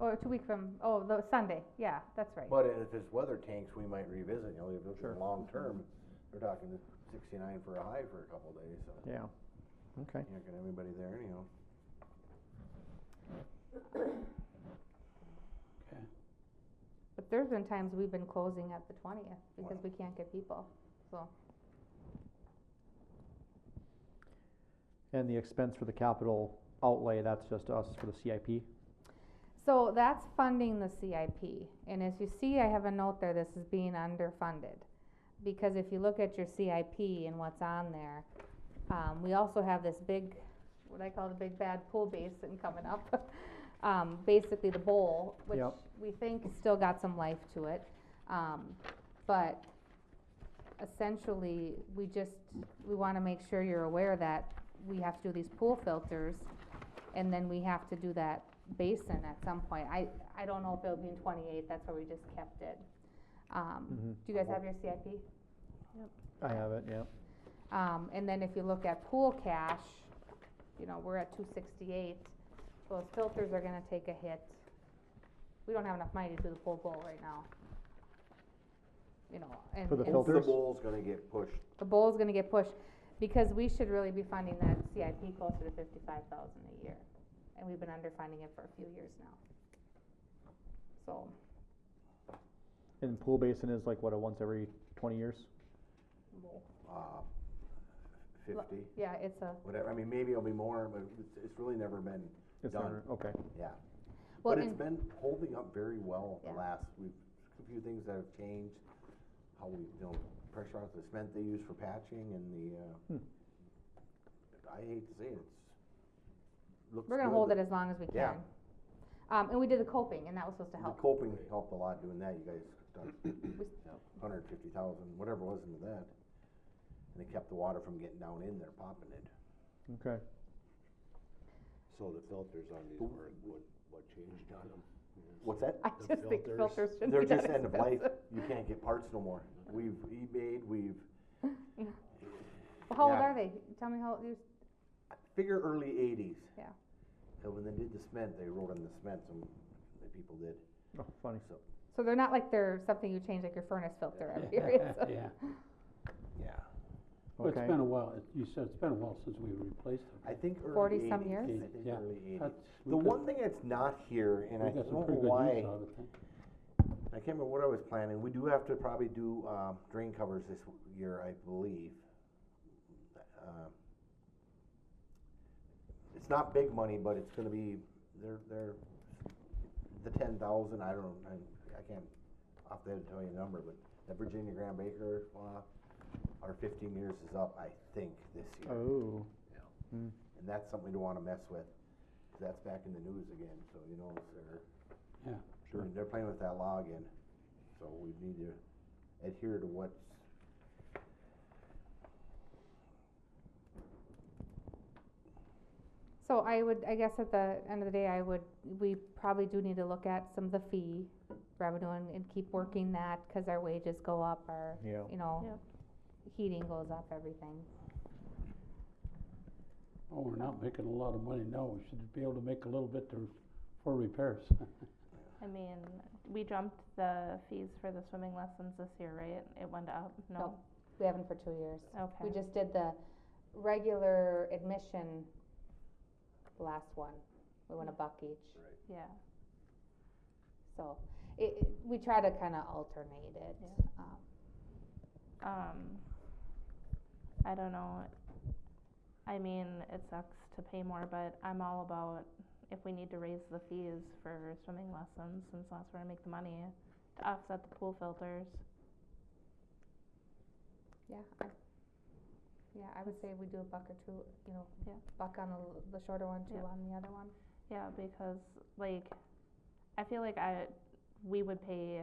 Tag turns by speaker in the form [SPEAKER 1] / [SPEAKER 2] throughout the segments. [SPEAKER 1] Or two weeks from, oh, the Sunday, yeah, that's right.
[SPEAKER 2] But if it's weather tanks, we might revisit, you know, if
[SPEAKER 3] Sure.
[SPEAKER 2] it's long-term, they're talking sixty-nine for a high for a couple days, so
[SPEAKER 3] Yeah, okay.
[SPEAKER 2] you're not gonna have anybody there anyhow.
[SPEAKER 1] But there's been times we've been closing at the twentieth because we can't get people, so.
[SPEAKER 3] And the expense for the capital outlay, that's just us for the CIP?
[SPEAKER 1] So that's funding the CIP, and as you see, I have a note there, this is being underfunded. Because if you look at your CIP and what's on there, um, we also have this big, what I call the big bad pool basin coming up. Um, basically the bowl, which
[SPEAKER 3] Yep.
[SPEAKER 1] we think has still got some life to it, um, but essentially, we just, we wanna make sure you're aware that we have to do these pool filters, and then we have to do that basin at some point. I, I don't know if it'll be in twenty-eight, that's where we just kept it. Um,
[SPEAKER 3] Mhm.
[SPEAKER 1] do you guys have your CIP?
[SPEAKER 3] I have it, yeah.
[SPEAKER 1] Um, and then if you look at pool cash, you know, we're at two sixty-eight, those filters are gonna take a hit. We don't have enough money to do the pool bowl right now. You know, and.
[SPEAKER 3] For the
[SPEAKER 1] and
[SPEAKER 3] filters?
[SPEAKER 2] The bowl's gonna get pushed,
[SPEAKER 1] The bowl's gonna get pushed, because we should really be funding that CIP closer to fifty-five thousand a year, and we've been underfunding it for a few years now. So,
[SPEAKER 3] And pool basin is like, what, a once every twenty years?
[SPEAKER 2] uh, fifty,
[SPEAKER 1] yeah, it's a,
[SPEAKER 2] whatever, I mean, maybe it'll be more, but it's, it's really never been,
[SPEAKER 3] It's
[SPEAKER 2] Done.
[SPEAKER 3] never- Okay,
[SPEAKER 2] yeah.
[SPEAKER 1] well,
[SPEAKER 2] But
[SPEAKER 1] and,
[SPEAKER 2] it's been holding up very well the
[SPEAKER 1] Yeah.
[SPEAKER 2] last, we've, a few things that have changed, how we, you know, pressure off the cement they use for patching and the, uh, I hate to say it, it's, looks
[SPEAKER 1] we're gonna
[SPEAKER 2] good,
[SPEAKER 1] hold
[SPEAKER 2] but
[SPEAKER 1] it as long as we can.
[SPEAKER 2] Yeah.
[SPEAKER 1] Um, and we did the coping, and that was supposed to
[SPEAKER 2] The
[SPEAKER 1] help.
[SPEAKER 2] coping helped a lot doing that, you guys done hundred fifty thousand, whatever was into that. And it kept the water from getting down in there, popping it.
[SPEAKER 3] okay.
[SPEAKER 4] So the filters on these were, what, what changed on them?
[SPEAKER 2] What's that?
[SPEAKER 1] I
[SPEAKER 4] The
[SPEAKER 1] just think
[SPEAKER 4] filters,
[SPEAKER 1] filters should
[SPEAKER 2] They're
[SPEAKER 1] be that
[SPEAKER 2] just end of
[SPEAKER 1] expensive.
[SPEAKER 2] life, you can't get parts no more. We've eBayed, we've,
[SPEAKER 1] Well, How old
[SPEAKER 2] Yeah.
[SPEAKER 1] are they? Tell me how, old you,
[SPEAKER 2] figure early eighties.
[SPEAKER 1] Yeah.
[SPEAKER 2] And when they did the cement, they wrote on the cement, some, the people did,
[SPEAKER 3] Oh, funny.
[SPEAKER 2] so,
[SPEAKER 1] so they're not like they're something you change like your furnace filter every year. It's a-
[SPEAKER 5] Yeah,
[SPEAKER 2] yeah.
[SPEAKER 5] well, it's
[SPEAKER 3] Okay.
[SPEAKER 5] been a while, It- you said it's been a while since we replaced
[SPEAKER 2] I think early
[SPEAKER 1] 40
[SPEAKER 2] eighties,
[SPEAKER 1] some
[SPEAKER 2] I
[SPEAKER 1] years?
[SPEAKER 2] think
[SPEAKER 5] Yeah.
[SPEAKER 2] early eighties.
[SPEAKER 5] them.
[SPEAKER 2] The one thing that's not here, and I
[SPEAKER 5] We
[SPEAKER 2] don't
[SPEAKER 5] got
[SPEAKER 2] know
[SPEAKER 5] some pretty good
[SPEAKER 2] why,
[SPEAKER 5] use out of it.
[SPEAKER 2] I can't remember what I was planning, we do have to probably do, um, drain covers this year, I believe. Um, It's not big money, but it's gonna be, they're, they're, the ten thousand, I don't, I, I can't off the head tell you the number, but the Virginia Graham Baker, uh, our fifteen years is up, I think, this year.
[SPEAKER 3] Oh,
[SPEAKER 2] And that's something to wanna mess with, 'cause that's back in the news again, so you know, they're.
[SPEAKER 5] Yeah,
[SPEAKER 2] Sure. They're playing with that law again, so we need to adhere to what's.
[SPEAKER 1] So I would, I guess at the end of the day, I would, we probably do need to look at some of the fee revenue and, and keep working that, cause our wages go up, our,
[SPEAKER 3] yeah.
[SPEAKER 1] you know, heating goes up, everything.
[SPEAKER 5] oh, we're not making a lot of money now, we should be able to make a little bit to, for repairs.
[SPEAKER 6] I mean, we jumped the fees for the swimming lessons this year, right? It went up, no?
[SPEAKER 1] We haven't for two years. We
[SPEAKER 6] Okay,
[SPEAKER 1] just did the regular admission, the last one, we went a buck each.
[SPEAKER 6] yeah.
[SPEAKER 1] So, it, it, we try to kinda alternate it, um,
[SPEAKER 6] Um, I don't know. I mean, it sucks to pay more, but I'm all about if we need to raise the fees for swimming lessons, since that's where I make the money, to offset the pool filters.
[SPEAKER 1] Yeah, I, yeah, I would say we do a buck or two, you know,
[SPEAKER 6] Yeah.
[SPEAKER 1] buck on the, l- the shorter one, two
[SPEAKER 6] Yeah.
[SPEAKER 1] on the other one.
[SPEAKER 6] Yeah, because like, I feel like I, we would pay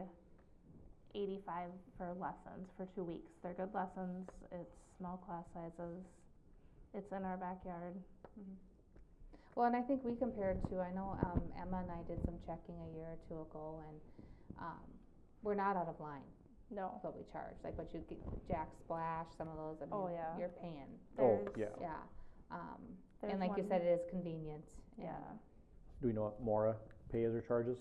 [SPEAKER 6] eighty-five for lessons for two weeks. They're good lessons, it's small class sizes, it's in our backyard.
[SPEAKER 1] Well, and I think we compared to, I know, um, Emma and I did some checking a year or two ago and, um, we're not out of line
[SPEAKER 6] No,
[SPEAKER 1] with what we charge, like what you get, Jack Splash, some of those, I
[SPEAKER 6] Oh,
[SPEAKER 1] mean,
[SPEAKER 6] yeah.
[SPEAKER 1] you're paying,
[SPEAKER 3] Oh,
[SPEAKER 6] there's,
[SPEAKER 3] yeah.
[SPEAKER 1] yeah. Um,
[SPEAKER 6] There's
[SPEAKER 1] and like you
[SPEAKER 6] one-
[SPEAKER 1] said, it is convenient. and
[SPEAKER 6] yeah.
[SPEAKER 3] Do we know what Mora pays or charges